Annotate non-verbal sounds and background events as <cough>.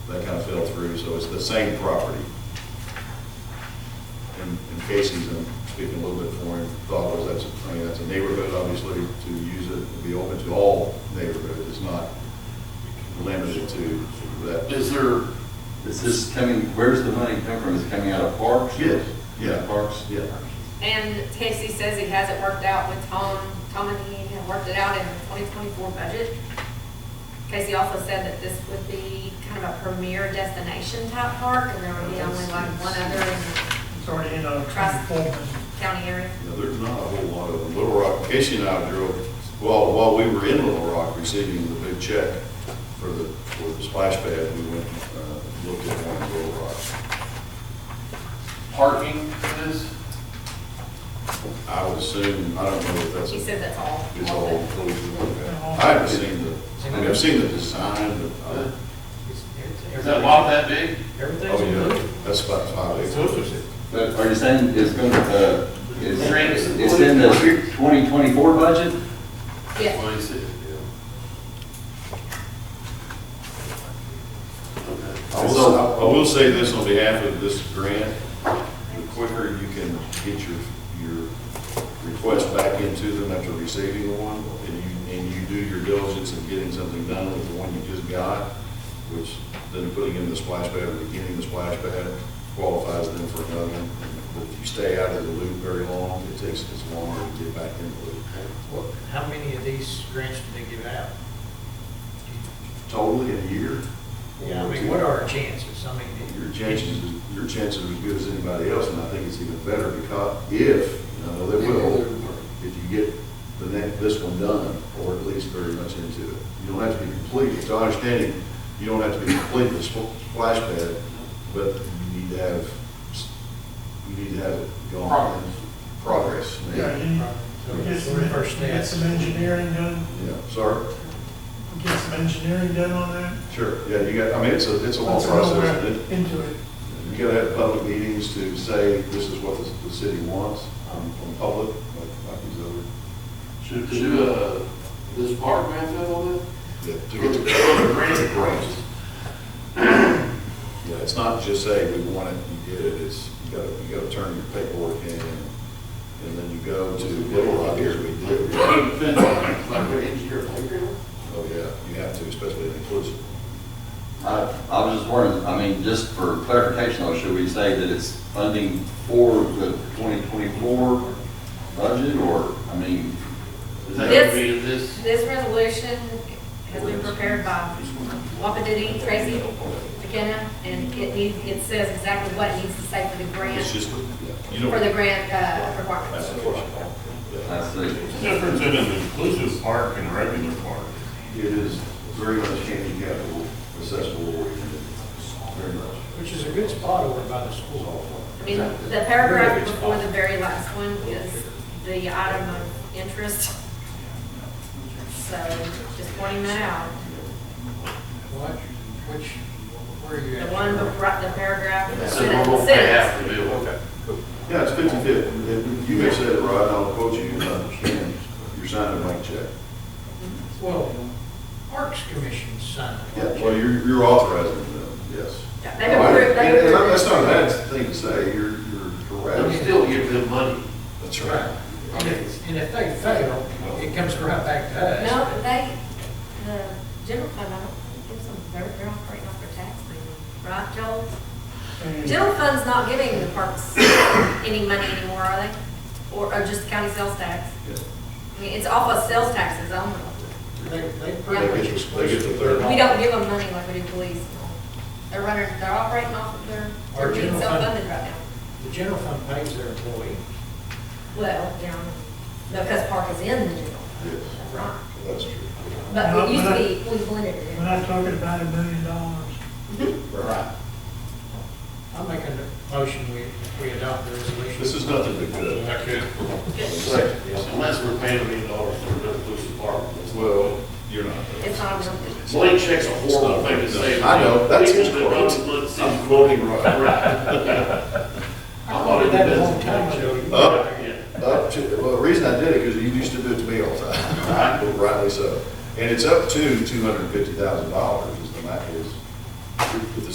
through, so it's the same property. And and Casey's, I'm speaking a little bit for him, thought was that's, I mean, that's a neighborhood, obviously, to use it, and be open to all neighborhoods, it's not limited to that. Is there, is this coming, where's the money coming from? Is it coming out of parks? Yes, yeah. Parks? Yeah, And Casey says he has it worked out with Tom, Tom and he have worked it out in the twenty twenty-four budget. Casey also said that this would be kind of a premier destination type park, and there would be only like one other in It's already in a Trust. form. the county area. You know, there's not a whole lot of them. Little Rock, Casey and I drove, while, while we were in Little Rock receiving the big check for the, for the splash pad, we went, uh, looked at one in Little Rock. Parking for this? I would assume, I don't know if that's, She is said that's all. all all the- included. I haven't seen the, I mean, I've seen the design, but, uh, Is that lot that big? oh, yeah, that's about five acres. But are you saying it's going to, is, Drinks. it's in the 2024 budget? Yeah, I will, I will say this on behalf of this grant, the quicker you can get your, your request back into them after receiving the one, and you, and you do your diligence in getting something done with the one you just got, which then putting in the splash pad, or beginning the splash pad qualifies them for another. one. But If you stay out of the loop very long, it takes us longer to get back in the loop. What, How many of these grants do they give out? Totally in a year? Yeah, I mean, what are our chances? I mean, your chances, your chances are as good as anybody else, and I think it's even better because if, you know, they will, if you get the next, this one done, or at least very much into it. You don't have to be complete, it's our understanding, you don't have to be complete with spl- splash pad, but you need to have, s- you need to have it gone. Progress. Yeah, Progress, you need- we Get some, First we get some engineering done, yeah, sorry, we get some engineering done on that. sure, yeah, you got, I mean, it's a, it's a long Let's go process, back and it- Into it. You gotta have public meetings to say, this is what the, the city wants um, from public, like, like these other. Should, should, uh, this park grant that on that? Yeah, to get the grant. Grant. Yeah, it's not just say, we want it, you get it, it's, you gotta, you gotta turn your paperwork in, and then you go to, little rock here, we do. Fence, Like an engineer playground? Oh, yeah, you have to, especially in inclusive. I, I was just wondering, I mean, just for clarification, though, should we say that it's funding for the 2024 budget, or, I mean, Is that gonna be in this? this resolution has been prepared by Wapatiti, Tracy McKenna, and it needs, it says exactly what it needs to say for the It's grant, just, yeah, you for the know. grant, uh, requirements. application. Yeah. that's the, Difference in an inclusive park and a regular park. It is very much handicap accessible, very much. which is a good spot over by the school. I mean, the paragraph before the very last one is the item of interest. So just pointing that out. What, which, where are you The at? one before, the paragraph. That's the normal pay half the bill. Yeah, it's fifty-fifty. You may say it right, and I'll quote you, you understand, you're signing a blank check. Well, Parks Commission signed. Yeah, well, you're, you're authorizing them, yes. They And- approved, they and That's not a approved. bad thing to say, you're, you're But you correct. still give them money. That's Right. And if, and if they fail, it comes right back to us. No, they, the general fund, I don't think gives them, they're, they're operating off their tax money, right, Joel? And- General fund's not giving the parks any money anymore, are they? Or, or just county sales tax? Yeah. I mean, it's off of sales taxes only. They, they They pretty get- much they get the third. We don't give them money like we do police. They're running, they're operating off of their, Our they're being general fund. self-funded right now. The general fund pays their employee. Well, down, because park is in the general. fund. Yes. Right. That's true. But we used to be, we blended it in. We're not talking about a million dollars. Right. I'm making a motion, we, we adopt the resolution. This is nothing but good. Okay. Second. Unless we're paying a million dollars for an inclusive park. Well, you're not. It's not a real thing. Blank check's a horrible thing to say. I know, that's his People that quote. run the city. <laughs> I'm quoting right. <laughs> I voted that a long time ago. You- Up, Yeah. up to, well, the reason I did it, because you <laughs> used to do it to me all the time, Well, rightly so. And it's up to two hundred and fifty thousand dollars,